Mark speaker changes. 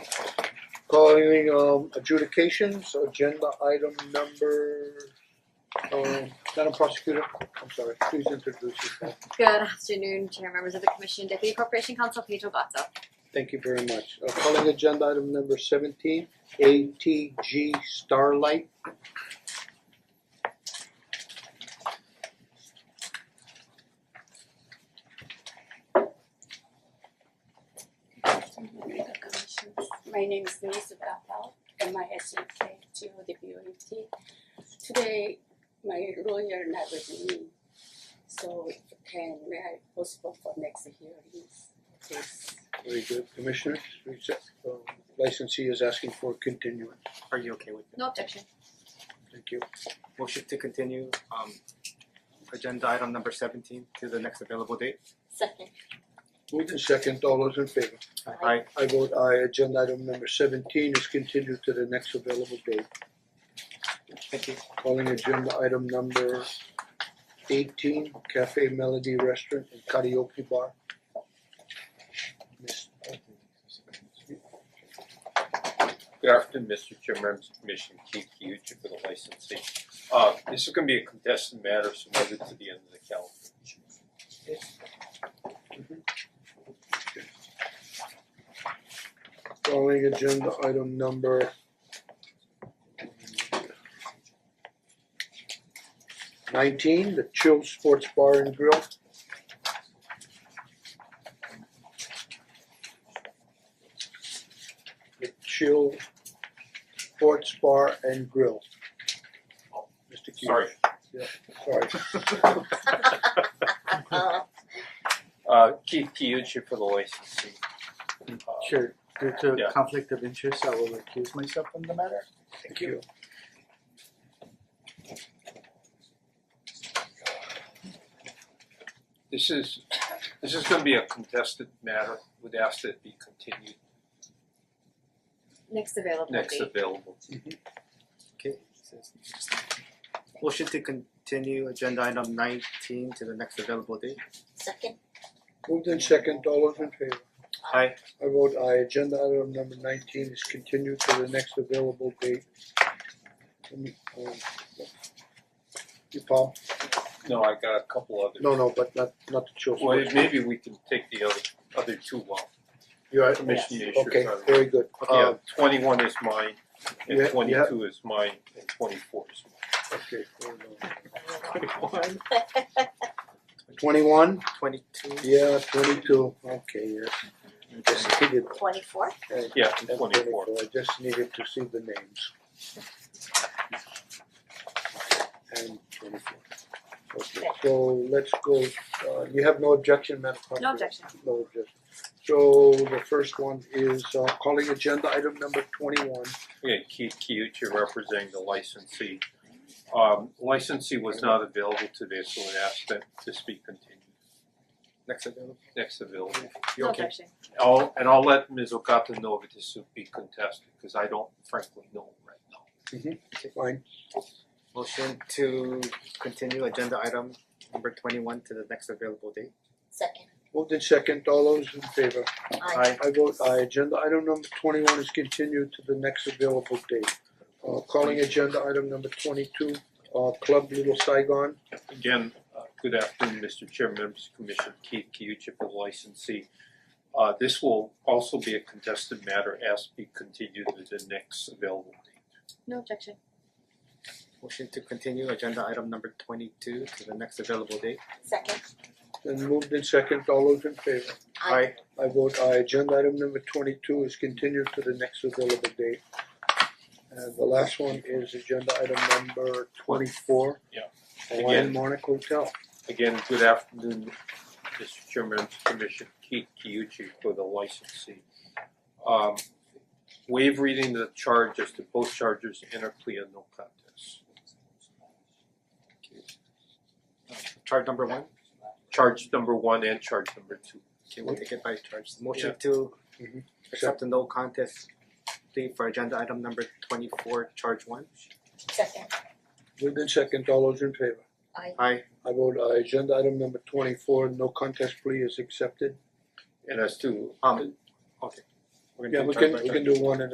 Speaker 1: Calling um adjudications, agenda item number, uh, Madam Prosecutor, I'm sorry, please introduce yourself.
Speaker 2: Good afternoon, Chair, members of the Commission, Deputy Corporation Counsel Pedro Gatto.
Speaker 1: Thank you very much. Uh, calling agenda item number seventeen, ATG Starlight.
Speaker 3: My name is Denise Capel, M I S E K T O D B O E T. Today, my lawyer not with me, so if you can may I postpone for next hearings, please?
Speaker 1: Very good, Commissioners, please, uh, licensee is asking for continuance,
Speaker 4: Are you okay with that?
Speaker 2: No objection.
Speaker 1: thank you.
Speaker 4: Motion to continue um agenda item number seventeen to the next available date.
Speaker 3: Second.
Speaker 1: Moved in second, all those in favor?
Speaker 4: Aye.
Speaker 1: I vote aye, agenda item number seventeen is continued to the next available date.
Speaker 4: Thank you.
Speaker 1: Calling agenda item number eighteen, Cafe Melody Restaurant and Karaoke Bar. Miss-
Speaker 5: Good afternoon, Mr. Chairman, Commission Keith Kyuchi for the licensee. Uh this is gonna be a contested matter submitted to the end of the calendar.
Speaker 1: Calling agenda item number nineteen, the Chill Sports Bar and Grill. The Chill Sports Bar and Grill. Mister Q.
Speaker 5: Sorry.
Speaker 1: Sorry.
Speaker 5: Uh Keith Kyuchi for the licensee. Uh,
Speaker 6: Sure, due to
Speaker 5: Yeah.
Speaker 6: conflict of interest, I will recuse myself from the matter.
Speaker 1: Thank you.
Speaker 5: This is, this is gonna be a contested matter, would ask that it be continued
Speaker 2: Next available
Speaker 5: next
Speaker 2: date.
Speaker 5: available.
Speaker 4: Okay. Motion to continue agenda item nineteen to the next available date.
Speaker 3: Second.
Speaker 1: Moved in second, all those in favor?
Speaker 4: Aye.
Speaker 1: I vote aye, agenda item number nineteen is continued to the next available date. Let me, um, You Paul?
Speaker 5: No, I got a couple others.
Speaker 1: No, no, but not not the children.
Speaker 5: Well, maybe we can take the other other two while
Speaker 1: You're right.
Speaker 5: Commission issues
Speaker 1: Okay,
Speaker 5: are-
Speaker 1: very good.
Speaker 5: Yeah,
Speaker 1: Uh,
Speaker 5: twenty one is mine,
Speaker 1: Yeah,
Speaker 5: and
Speaker 1: yeah.
Speaker 5: twenty two is mine, and twenty four is
Speaker 1: okay, hold on.
Speaker 5: mine. Twenty
Speaker 1: Twenty-one?
Speaker 4: Twenty two.
Speaker 1: Yeah, twenty-two, okay, yeah. I Just needed,
Speaker 3: Twenty four?
Speaker 1: uh,
Speaker 5: Yeah,
Speaker 1: and
Speaker 5: twenty four.
Speaker 1: I just needed to see the names. And twenty-four. Okay, so let's go, uh, you have no objection, Madam Clerk?
Speaker 2: No objection.
Speaker 1: No objection. So the first one is uh calling agenda item number twenty one.
Speaker 5: Okay, Keith Kyuchi representing the licensee. Um licensee was not available today, so we ask that this be continued,
Speaker 4: Next available.
Speaker 5: next available.
Speaker 4: You
Speaker 2: No
Speaker 4: okay?
Speaker 2: objection.
Speaker 5: I'll and I'll let Ms. Okata know if this would be contested, cause I don't frankly know right now.
Speaker 1: Fine,
Speaker 4: Motion to continue agenda item number twenty one to the next available date.
Speaker 3: Second.
Speaker 1: moved in second, all those in favor?
Speaker 4: Aye.
Speaker 1: I vote aye, agenda item number twenty one is continued to the next available date. Uh calling agenda item number twenty two, uh Club Little Saigon.
Speaker 5: Again, uh, good afternoon, Mr. Chair, members of the Commission, Keith Kyuchi for the licensee. Uh, This will also be a contested matter, as be continued to the next available date.
Speaker 2: No objection.
Speaker 4: Motion to continue agenda item number twenty two to the next available date.
Speaker 3: Second.
Speaker 1: Then moved in second, all those in favor?
Speaker 4: Aye.
Speaker 1: I vote aye, agenda item number twenty two is continued to the next available date. And the last one is agenda item number twenty four.
Speaker 5: Yeah.
Speaker 1: Hawaiian
Speaker 5: Again.
Speaker 1: Monarch Hotel.
Speaker 5: Again, good afternoon, Mr. Chair, members of the Commission, Keith Kyuchi for the licensee. Um, Waive reading the charge as to both charges, enter plea of no contest.
Speaker 4: Uh, Charge number one.
Speaker 5: Charge number one and charge number two.
Speaker 4: Okay, we'll take it by charge. Motion to
Speaker 1: Mhm.
Speaker 4: accept the no contest plea for agenda item number twenty four, charge one.
Speaker 3: Second.
Speaker 1: Moved in second, all those in favor?
Speaker 4: Aye.
Speaker 1: I vote aye, agenda item number twenty four, no contest plea is accepted.
Speaker 5: And as to
Speaker 4: Um, okay. We're
Speaker 1: Yeah,
Speaker 4: gonna do
Speaker 1: we
Speaker 4: charge
Speaker 1: can
Speaker 4: by
Speaker 1: we
Speaker 4: charge.
Speaker 1: can do one at